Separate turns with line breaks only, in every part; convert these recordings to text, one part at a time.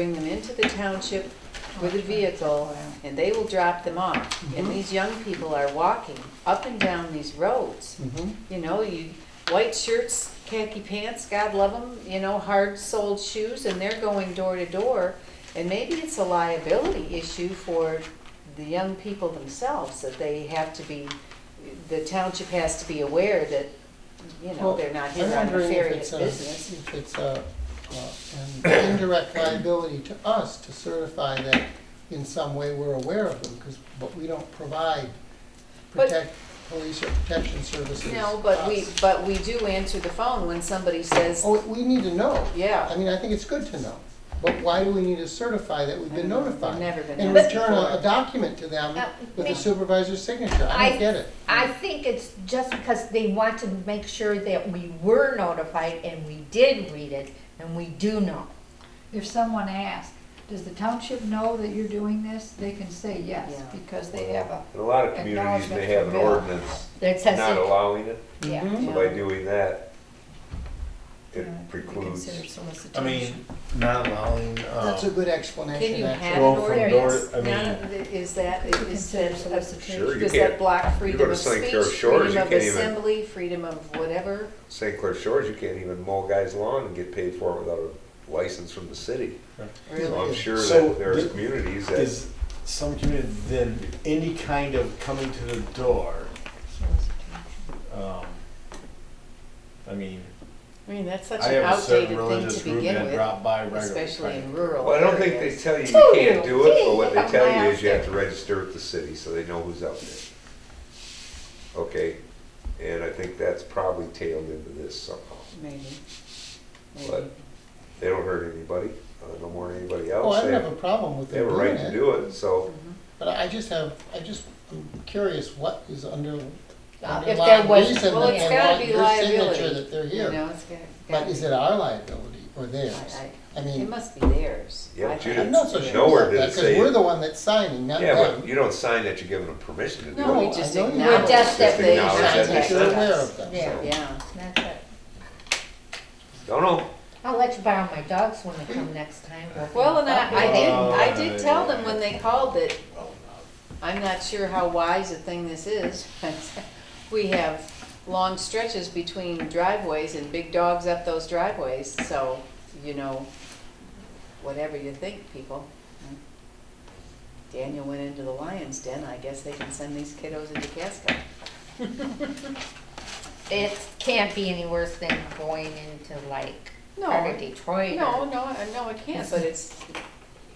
bring them into the township with a vehicle, and they will drop them off.
Mm-hmm.
And these young people are walking up and down these roads. You know, you, white shirts, khaki pants, God love them, you know, hard-soled shoes, and they're going door to door. And maybe it's a liability issue for the young people themselves, that they have to be, the township has to be aware that, you know,
Well,
they're not
I'm
here on
wondering if
nefarious
it's a-
business.
If it's a, uh, an indirect liability to us to certify that in some way we're aware of them, because, but we don't provide
But-
protect, police or protection services.
No, but we,
us.
but we do answer the phone when somebody says,
Oh, we need to know.
Yeah.
I mean, I think it's good to know, but why do we need to certify that we've been
I don't know. We've
notified?
never been
And
notified.
return a, a document to them
Uh,
with
may-
a supervisor's signature, I
I-
don't get it.
I think it's just because they want to make sure that we were notified and we did read it and we do know.
If someone asks, does the township know that you're doing this? They can say yes,
Yeah.
because they have a,
In a lot of communities, they have an ordinance
That says
not
it,
allowing it,
yeah.
Mhm.
so by doing that,
you
it
know, it could be considered
precludes.
I
solicitation.
mean, not allowing,
That's a
uh,
good explanation,
Can you
actually.
have an
Well, from
ordinance?
door- I
Now, Is that,
Could be
is
considered
that,
solicitation.
Sure, you
does that
can't-
block
you go
freedom
to
of
St.
speech,
Clair Shores,
freedom
you
of
can't even-
assembly, freedom of whatever?
St. Clair Shores, you can't even mow a guy's lawn and get paid for it without a license from the city. So
Really?
I'm sure
So
that there are
the-
communities that,
is some community, then any kind of coming to the door, um, I mean,
I mean, that's such
I
an
have a
outdated thing
certain
to
religious group
begin
that
with,
drop by regularly.
especially in
well,
rural
I don't think they
areas.
tell you
Tell
you can't
you.
do it, but what
Gee,
they tell
I'm
you is you have to
asking.
register with the city, so they know who's out there. Okay, and I think that's probably tailed into this somehow.
Maybe.
But
Maybe.
they don't hurt anybody, uh, no more than anybody
Oh, I
else.
don't
They
have a
have,
problem with
they
them
have a
doing
right to
it,
do it, so
but I just have, I just, I'm curious what is
Uh,
under,
if
underlying
there was-
reason
well,
that
it's
they
gotta
want
be
your signature
liability,
that they're
You
here.
know, it's got.
But is it our liability or theirs?
I-
I
It
mean,
must be theirs.
Yeah,
I
but you
think
I'm
didn't-
not
it's
so
theirs.
sure
Nowhere
about
did it
that, because
say-
we're the one that's signing, not
Yeah, but
them.
you don't sign that you're giving them permission to do it.
No, we
No,
just
I know you-
acknowledge.
We're
that
just that
they
they
Sign
acknowledge
that
contacted
You're aware
us.
of them.
Yeah.
so.
Yeah,
That's it.
Don't know.
I'll let you borrow my dogs when they come next time.
well, and I, I did, I
Uh,
did tell them when they called that I'm not sure how wise a thing this is, but we have long stretches between driveways and big dogs up those driveways, so, you know, whatever you think, people. Daniel went into the lion's den, I guess they can send these kiddos into Casco.
uh, It can't be any worse than going into like
No.
part of Detroit.
No,
or-
no, I- no, it can't, but it's,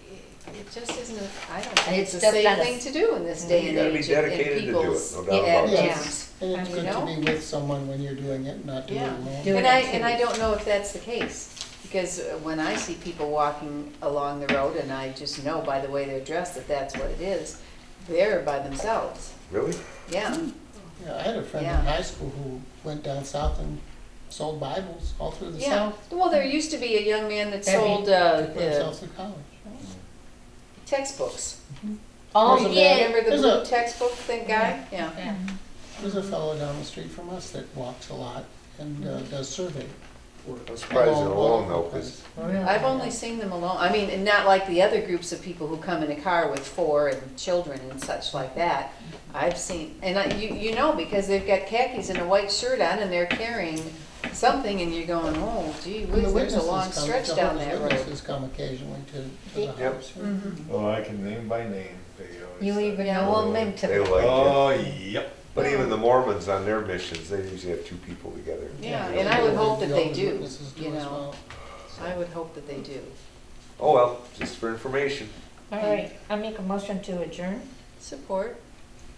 it just isn't, a- I don't think it's
It's
the
just
safe
not a-
thing to do in this day
Mm-hmm. You
and
gotta be
age and- and
dedicated to do it,
people's
no doubt about
it.
attitudes.
And it's
You
good
know?
to be with someone when you're doing it, not doing it
Yeah.
alone.
Do
And
it
I,
in
and I
twos.
don't know if that's the case, because uh, when I see people walking along the road, and I just know by the way they're dressed that that's what it is, they're by themselves,
Really?
yeah.
Hmm.
Yeah, I had a friend in
Yeah.
high school who went down south and sold Bibles all through the
Yeah,
south,
well, there used to be a young man that
That'd be-
sold uh,
to put
uh,
themselves through college.
textbooks.
Oh,
There's a
yeah.
man-
Remember the
There's
blue
a-
textbook thing guy? Yeah.
Yeah.
There's a fellow down the street from us that walks a lot and
Mm-hmm.
uh, does survey work.
I'm surprised they're alone though, 'cause-
Really?
I've
Oh,
only seen them alone, I mean, and not like the other groups of people who come in a car with four and children and such like that. I've seen, and I, you, you know, because they've got khakis and a white shirt on and they're carrying something and you're going, oh gee
And
whiz,
the
there's a
witnesses
long
come-
stretch
Jehovah's
down Mm-hmm. that road.
Witnesses come occasionally to, to
Yep.
the house.
Oh, I can name by name, they always.
You
say.
even
Yeah.
know a mint
They
to
like it.
Oh, yep.
But even the Mormons on their missions, they usually have two people together.
Yeah, and I would hope that they
Jehovah's
do,
Witnesses do
you
as
know,
well.
I would hope that they do.
Oh, well, just for information.
All right, I make a motion to adjourn.
Support,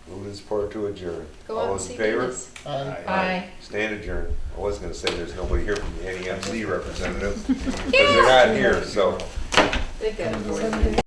Moving is part to adjourn.
go out
All
and
those
see
in favor?
Dennis.
I-
Aye.
Stand adjourned. I was gonna say there's nobody here from the NEMC representative, because they're not here, so.
They've got a board.
Somebody-